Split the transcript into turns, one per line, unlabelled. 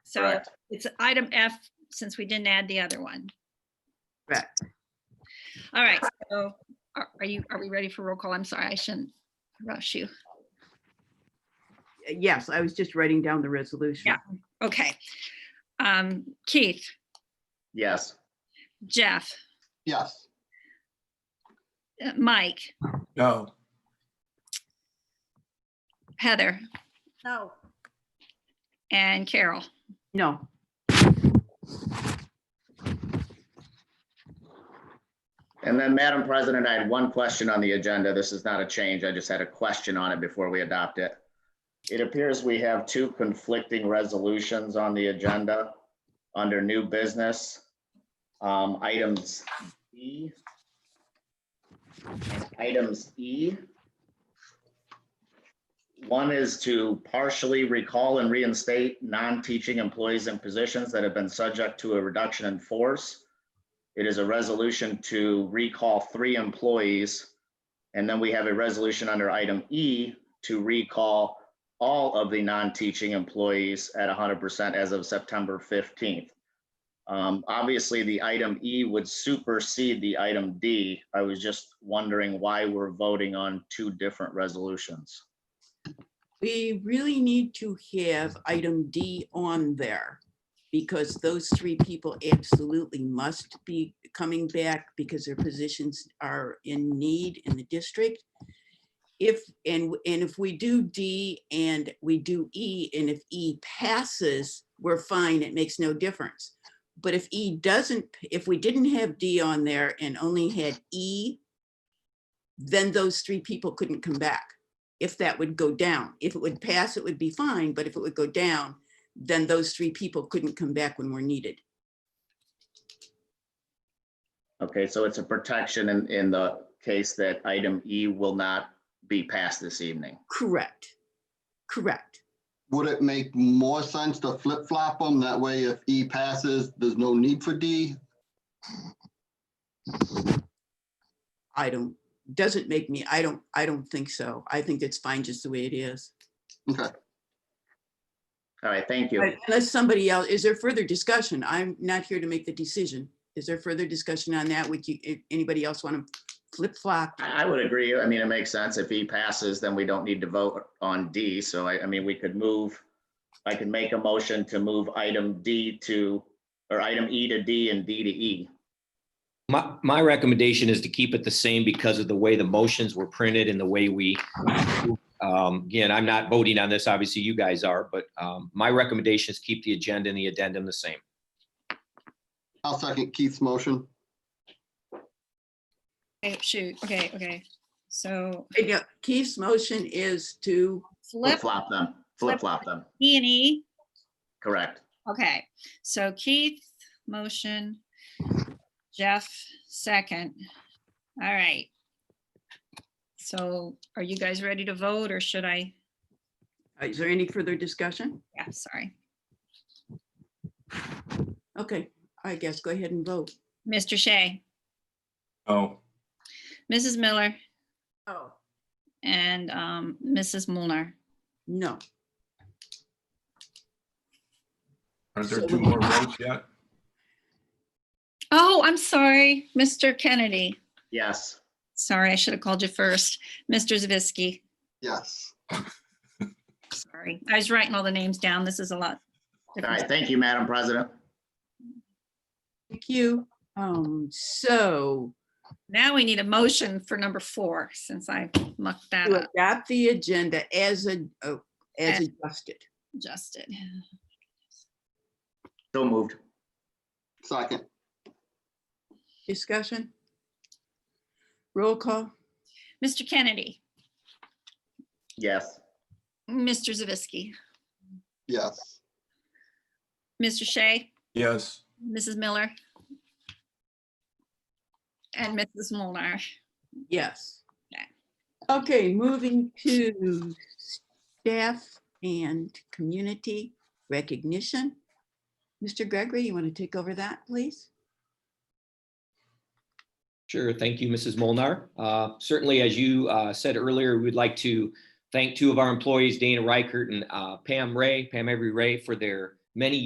So
Correct.
it's item F, since we didn't add the other one.
Correct.
All right, so are are you, are we ready for roll call? I'm sorry, I shouldn't rush you.
Yes, I was just writing down the resolution.
Yeah. Okay. Um, Keith,
Yes.
Jeff,
Yes.
uh, Mike,
No.
Heather,
No.
and Carol.
No,
And then, Madam President, I had one question on the agenda. This is not a change. I just had a question on it before we adopt it. It appears we have two conflicting resolutions on the agenda under new business. Um, items E. and Items E. One is to partially recall and reinstate non-teaching employees in positions that have been subject to a reduction in force. It is a resolution to recall three employees. And then we have a resolution under item E to recall all of the non-teaching employees at hundred percent as of September fifteenth. Um, obviously, the item E would supersede the item D. I was just wondering why we're voting on two different resolutions.
we really need to have item D on there because those three people absolutely must be coming back because their positions are in need in the district. If, and, and if we do D and we do E, and if E passes, we're fine, it makes no difference. But if E doesn't, if we didn't have D on there and only had E, then those three people couldn't come back if that would go down. If it would pass, it would be fine, but if it would go down, then those three people couldn't come back when we're needed.
Okay, so it's a protection in, in the case that item E will not be passed this evening.
Correct. Correct.
Would it make more sense to flip flop them? That way if E passes, there's no need for D?
I don't, doesn't make me, I don't, I don't think so. I think it's fine just the way it is.
All right, thank you.
But Unless somebody else, is there further discussion? I'm not here to make the decision. Is there further discussion on that? Would you, a- anybody else want to flip flop?
I I would agree. I mean, it makes sense. If E passes, then we don't need to vote on D. So I, I mean, we could move, I can make a motion to move item D to, or item E to D and D to E.
My, my recommendation is to keep it the same because of the way the motions were printed and the way we, um, again, I'm not voting on this, obviously you guys are, but, um, my recommendation is keep the agenda and the addendum the same.
I'll second Keith's motion.
Okay, shoot, okay, okay. So
Yeah, Keith's motion is to,
Flip
flip
flop them, flip flop them.
E and E.
Correct.
Okay, so Keith, motion, Jeff, second. All right. So are you guys ready to vote or should I?
uh, is there any further discussion?
Yeah, sorry.
Okay, I guess go ahead and vote.
Mr. Shea,
Oh.
Mrs. Miller,
Oh.
and um, Mrs. Mulner.
No.
Aren't there
So
two
we-
more votes yet?
Oh, I'm sorry, Mr. Kennedy.
Yes.
Sorry, I should have called you first. Mr. Zavisky,
Yes.
sorry. I was writing all the names down. This is a lot.
All right, thank you, Madam President.
Thank you. Um, so
Now we need a motion for number four, since I mucked that
to
up,
adopt the agenda as a, oh, as
As-
adjusted.
adjusted.
So moved.
Second.
Discussion? Roll call?
Mr. Kennedy,
Yes.
Mr. Zavisky,
Yes.
Mr. Shea,
Yes,
Mrs. Miller, and Mrs. Molnar.
Yes. Okay, moving to staff and community recognition. Mr. Gregory, you want to take over that, please?
Sure. Thank you, Mrs. Molnar. Uh, Certainly, as you uh, said earlier, we'd like to thank two of our employees, Dana Reichert and uh, Pam Ray, Pam Avery Ray, for their many